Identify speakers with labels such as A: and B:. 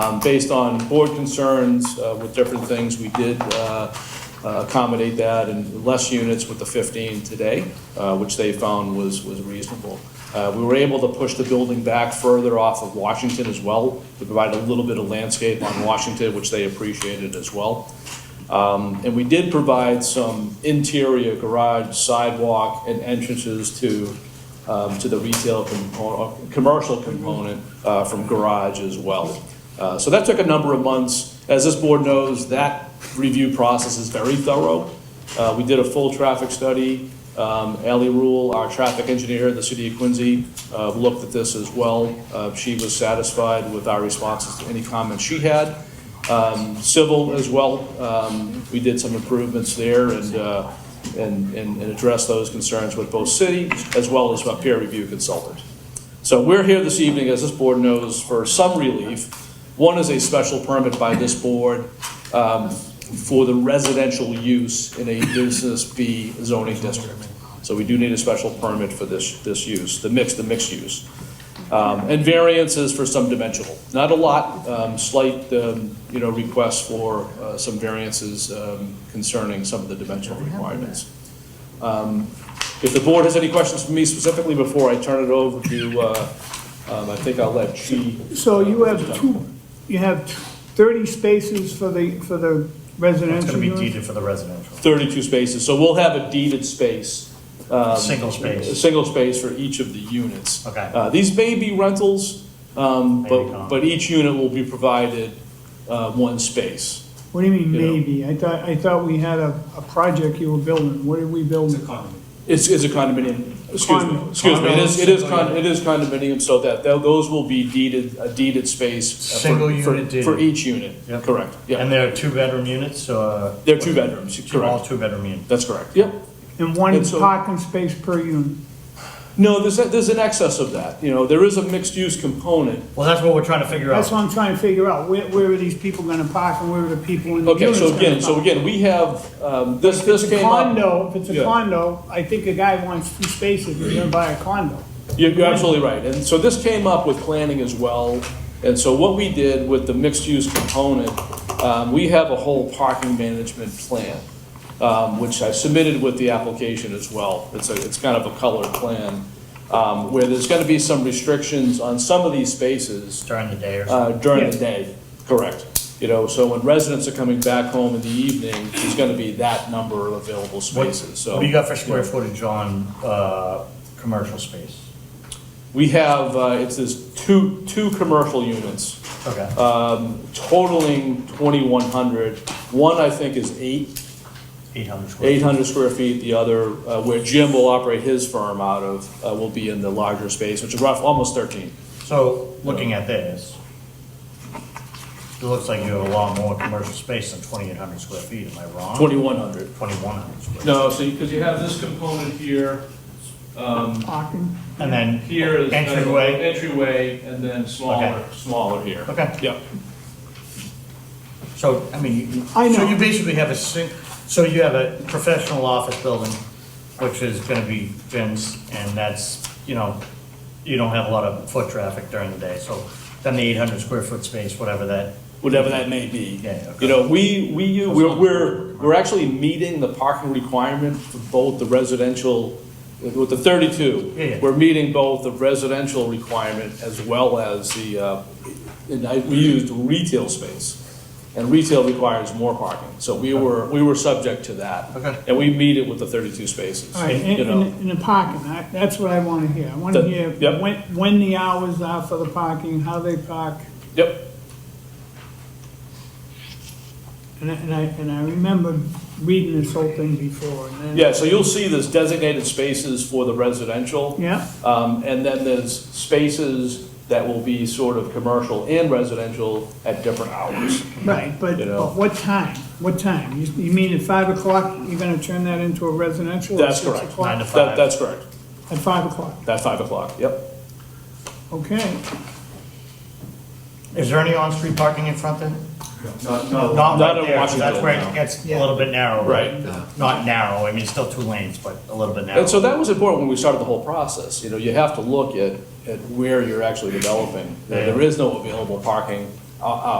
A: Um, Based on board concerns uh, with different things, we did uh, uh, accommodate that in less units with the 15 today, uh, which they found was, was reasonable. Uh, We were able to push the building back further off of Washington as well, to provide a little bit of landscape on Washington, which they appreciated as well. Um, And we did provide some interior garage, sidewalk, and entrances to, um, to the retail component, commercial component uh, from garage as well. Uh, So that took a number of months. As this board knows, that review process is very thorough. Uh, We did a full traffic study. Um, Ally Rule, our traffic engineer in the city of Quincy, uh, looked at this as well. Uh, She was satisfied with our responses to any comments she had um, civil as well. Um, We did some improvements there and, uh, and, and and addressed those concerns with both city as well as our peer review consultant. So we're here this evening, as this board knows, for some relief. One is a special permit by this board um, for the residential use in a business B zoning district. So we do need a special permit for this, this use, the mix, the mixed use. Um, And variances for some dimensional, not a lot, um, slight, um, you know, requests for uh, some variances um, concerning some of the dimensional requirements. Um, If the board has any questions for me specifically before I turn it over to, uh, um, I think I'll let Chi. uh,
B: So you have two, you have thirty spaces for the, for the
C: It's
B: residential
C: gonna be
B: units?
C: deeded for the residential,
A: 32 spaces, so we'll have a deeded space. um,
C: Single space.
A: A single space for each of the units.
C: Okay.
A: Uh, These may be rentals, um,
C: Maybe
A: but,
C: not.
A: but each unit will be provided uh, one space.
B: What do you mean
A: You know.
B: maybe? I thought, I thought we had a, a project you were building. What did we build? It's a condo.
A: It's, it's a condominium, excuse me,
B: Condo.
A: excuse me, it is, it is con,
C: Condo.
A: it is condominium, so that, tho- those will be deeded, a deeded space. uh, for-
C: Single
A: for-
C: unit deeded.
A: For each unit,
C: Yep.
A: correct,
C: and
A: yeah,
C: they're two-bedroom units, so. uh,
A: they're two bedrooms,
C: Two, all
A: correct,
C: two-bedroom units.
A: that's correct, yep.
B: And one
A: And so-
B: parking space per unit?
A: No, there's, a- there's an excess of that, you know, there is a mixed-use component,
C: Well, that's what we're trying to figure
B: That's
C: out.
B: what I'm trying to figure out. Where, where are these people gonna park and where are the people in the
A: Okay,
B: units
A: so
B: gonna
A: again, so
B: park?
A: again, we have, um, this, this
B: If it's a
A: came up.
B: condo, if it's a
A: Yeah.
B: condo, I think a guy wants two spaces, he's gonna buy a condo.
A: You're you're absolutely right. And so this came up with planning as well. And so what we did with the mixed-use component, um, we have a whole parking management plan, um, which I submitted with the application as well. It's a, it's kind of a colored plan, um, where there's gonna be some restrictions on some of these spaces
C: During the day or something.
A: uh, during the day, correct. You know, so when residents are coming back home in the evening, there's gonna be that number of available
C: What
A: spaces, so.
C: what do you got for square footage on, uh, commercial space?
A: We have, uh, it's this two, two commercial units
C: Okay,
A: um, totaling 2,100. One, I think, is eight,
C: eight hundred square.
A: 800 square feet. The other, uh, where Jim will operate his firm out of, uh, will be in the larger space, which is rough, almost 13.
C: So, looking at this, it looks like you have a lot more commercial space than twenty-eight hundred square feet, am I wrong?
A: 2,100.
C: Twenty-one hundred square.
A: No, so, because you have this component here,
B: Parking?
C: And then
A: Here is. uh, kind of
C: entryway,
A: Entryway, and then smaller, smaller here.
C: Okay.
A: Yep.
C: So, I mean, you-
B: I
C: so
B: know.
C: you basically have a sing, so you have a professional office building, which is gonna be Vince, and that's, you know, you don't have a lot of foot traffic during the day, so then the eight hundred square foot space, whatever that,
A: whatever that may be.
C: Yeah, okay.
A: You know, we, we, u- we're, we're, we're actually meeting the parking requirement for both the residential, with the thirty-two.
C: Yeah, yeah.
A: We're meeting both the residential requirement as well as the, uh, and I, we used retail space. And retail requires more parking, so we were, we were subject to that.
C: Okay.
A: And we meet it with the thirty-two spaces.
B: All right,
A: you
B: and,
A: know.
B: and the parking, I- that's what I wanna hear. I wanna
A: The-
B: hear
A: yep.
B: when, when the hours are for the parking, how they park.
A: Yep,
B: And I, and I, and I remember reading this whole thing before, and then.
A: yeah, so you'll see there's designated spaces for the residential.
B: Yeah,
A: Um, And then there's spaces that will be sort of commercial and residential at different hours.
B: right, but,
A: You know.
B: but what time? What time? You, you mean at five o'clock, you're gonna turn that into a residential? or
A: That's
B: six
A: correct.
B: o'clock?
C: Nine
A: That,
C: to five.
A: that's correct,
B: At five o'clock,
A: That's five o'clock, yep.
B: okay.
C: Is there any on-street parking in front then?
A: No,
C: Not
A: Not
C: right
A: in
C: there, 'cause that's
A: Washington,
C: where
A: no.
C: it gets a
B: Yeah.
C: little bit narrow.
A: Right.
C: Not narrow, I mean, it's still two lanes, but a little bit narrow.
A: And so that was important when we started the whole process, you know, you have to look at, at where you're actually developing. There there is no available parking uh, uh,